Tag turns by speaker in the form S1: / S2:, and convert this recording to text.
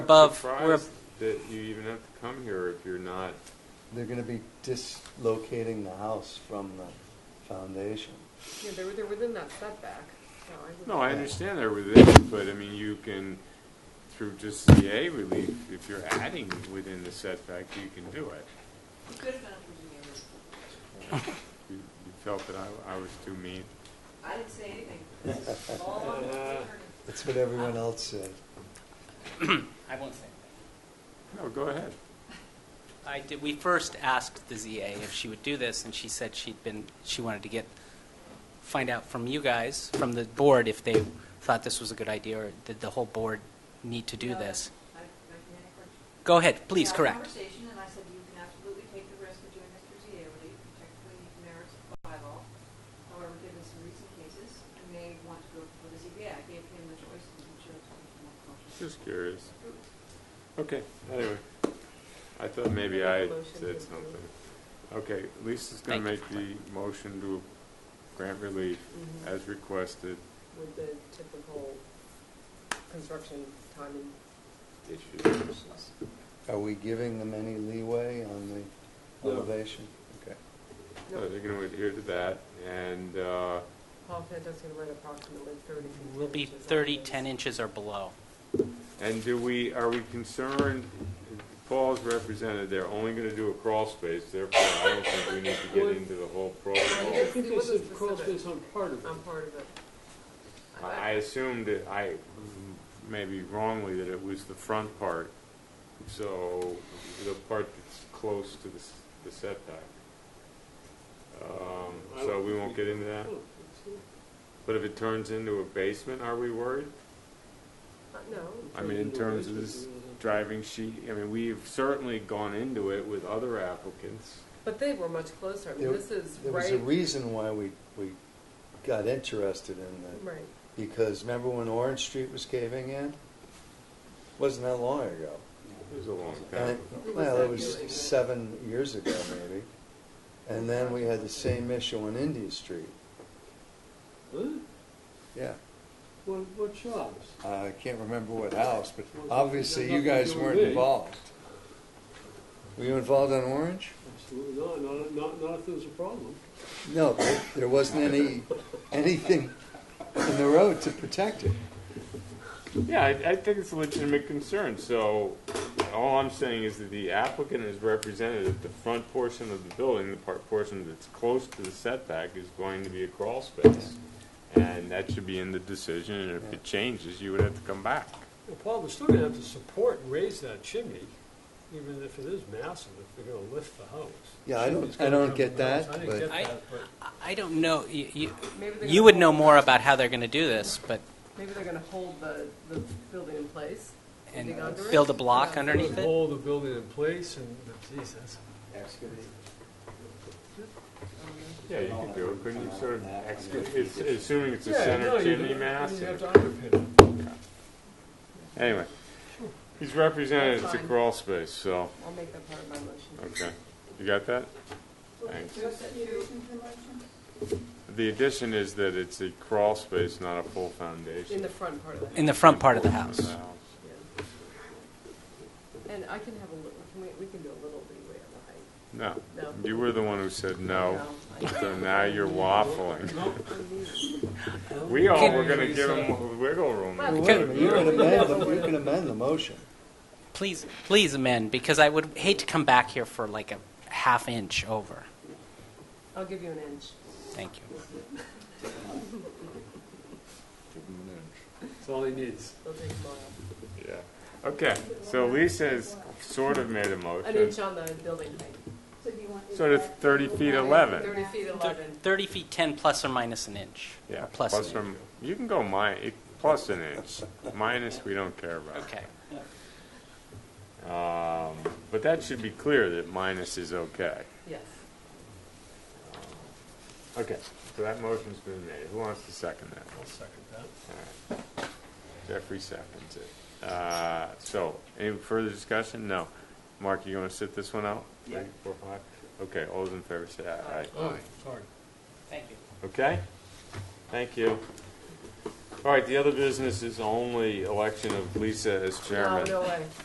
S1: above, we're,
S2: surprised that you even have to come here if you're not,
S3: They're gonna be dislocating the house from the foundation.
S4: Yeah, they're, they're within that setback, so I would.
S2: no, I understand they're within, but I mean, you can, through just CA relief, if you're adding within the setback, you can do it.
S5: Could have been up in the air.
S2: You you felt that I, I was too mean.
S5: I didn't say anything. This is all on the record.
S3: That's what everyone else said.
S1: I won't say anything.
S2: No, go ahead.
S1: I did, we first asked the ZA if she would do this, and she said she'd been, she wanted to get, find out from you guys, from the board, if they thought this was a good idea, or did the whole board need to do
S5: You know,
S1: this?
S5: I- I can add a correction.
S1: Go ahead,
S5: We
S1: please,
S5: had a
S1: correct.
S5: conversation, and I said, you can absolutely take the risk of doing this through ZA relief, particularly if merits the bylaw. However, given some recent cases, I may want to go for the ZBA. I gave him the choice, and he chose to be more cautious.
S2: Just curious.
S5: Oops.
S2: Okay, anyway. I thought maybe I
S4: Motion to
S2: said
S4: approve.
S2: something. Okay, Lisa's gonna make
S1: Thank
S2: the motion to grant relief
S4: Mhm.
S2: as requested.
S4: With the typical construction time and
S2: Issues.
S4: issues.
S3: Are we giving them any leeway on the
S2: No.
S3: elevation? Okay.
S2: So they're gonna adhere to that, and, uh,
S4: Paul Fanta's gonna write approximately thirty. to
S1: Will be
S4: 10 inches on
S1: 30,
S4: this.
S1: 10 inches or below.
S2: and do we, are we concerned, Paul's represented, they're only gonna do a crawl space, therefore I don't think we need to get into the whole protocol.
S6: I think this is crawl space on part of it.
S4: I'm part of it.
S2: I I assumed, that I, maybe wrongly, that it was the front part, so the part that's close to the s- the setback. Um, So we won't get into that? But if it turns into a basement, are we worried?
S4: Uh, No,
S2: I mean, in terms of this driving sheet, I mean, we've certainly gone into it with other applicants.
S4: but they were much closer. I mean,
S3: There-
S4: this is
S3: There was a
S4: right,
S3: reason why we, we got interested in that.
S4: right.
S3: Because remember when Orange Street was caving in? Wasn't that long ago?
S2: It was a long time
S3: And,
S2: ago.
S4: Who was
S3: well,
S4: that
S3: it was
S4: doing?
S3: seven years ago maybe. And then we had the same issue on India Street. Yeah.
S6: What, what shops?
S3: I can't remember what house, but obviously you guys weren't involved. Were you involved on Orange?
S6: Absolutely not, not, not, not if there's a problem.
S3: No, there- there wasn't any, anything in the road to protect it.
S2: Yeah, I, I think it's a legitimate concern, so all I'm saying is that the applicant is represented at the front portion of the building, the part portion that's close to the setback is going to be a crawl space. And that should be in the decision, and if it changes, you would have to come back.
S6: Well, Paul, they're still gonna have to support and raise that chimney, even if it is massive, if they're gonna lift the house.
S3: Yeah, I don't-
S6: Chimney's gonna
S3: I don't
S6: come
S3: get
S6: down.
S3: that,
S6: I
S3: but-
S6: didn't get
S1: I-
S6: that, but.
S1: I- I don't know, you, you-
S4: Maybe they're
S1: you
S4: gonna
S1: would know
S4: hold-
S1: more about how they're going to do this, but,
S4: Maybe they're gonna hold the, the building in place.
S1: and
S4: dig under it.
S1: build a block
S4: Yeah.
S1: underneath it?
S6: Hold the building in place and, geez, that's.
S4: Um,
S2: Yeah, you could do it, couldn't you sort of excavate, it's- assuming it's a
S6: Yeah, no,
S2: center
S6: you-
S2: chimney mass?
S6: You have
S2: and-
S6: to underpin it.
S2: Anyway, he's represented
S4: That's
S2: as a
S4: fine.
S2: crawl space, so,
S4: I'll make that part of my motion.
S2: okay, you got that? Thanks. The addition is that it's a crawl space, not a full foundation.
S4: In the front part of the house.
S1: In the front part of the house.
S4: Yeah. And I can have a little, can we, we can do a little leeway on the height.
S2: No,
S4: No.
S2: you were the one who said no,
S4: No, I-
S2: so now you're waffling.
S6: No.
S2: We all
S1: Can-
S2: were gonna give him wiggle room.
S4: Well,
S3: Wait
S4: we
S3: a
S4: can-
S3: minute, you can amend, the- you can amend the motion.
S1: Please, please amend, because I would hate to come back here for like a half inch over.
S4: I'll give you an inch.
S1: Thank you.
S6: That's all he needs.
S4: They'll take mine.
S2: Yeah, okay, so Lisa has sort of made a
S4: An
S2: motion,
S4: inch on the building height,
S2: sort of thirty feet eleven.
S4: thirty feet eleven.
S1: 30 feet 10 plus or minus an inch.
S2: Yeah,
S1: Or plus
S2: plus
S1: an
S2: from, you can go mi, it- plus an inch, minus we don't care about.
S1: Okay.
S2: Um, but that should be clear that minus is okay.
S4: Yes.
S2: Okay, so that motion's been made, who wants to second that?
S6: I'll second that.
S2: All right. Jeffrey seconds it. Uh, So, any further discussion? No. Mark, you going to sit this one out?
S1: Yeah.
S2: Three, four, five? Okay, all those in favor say aye.
S6: Oh, sorry.
S1: Thank you.
S2: Okay? Thank you. All right, the other business is only election of Lisa as
S4: No,
S2: chairman.
S4: no way.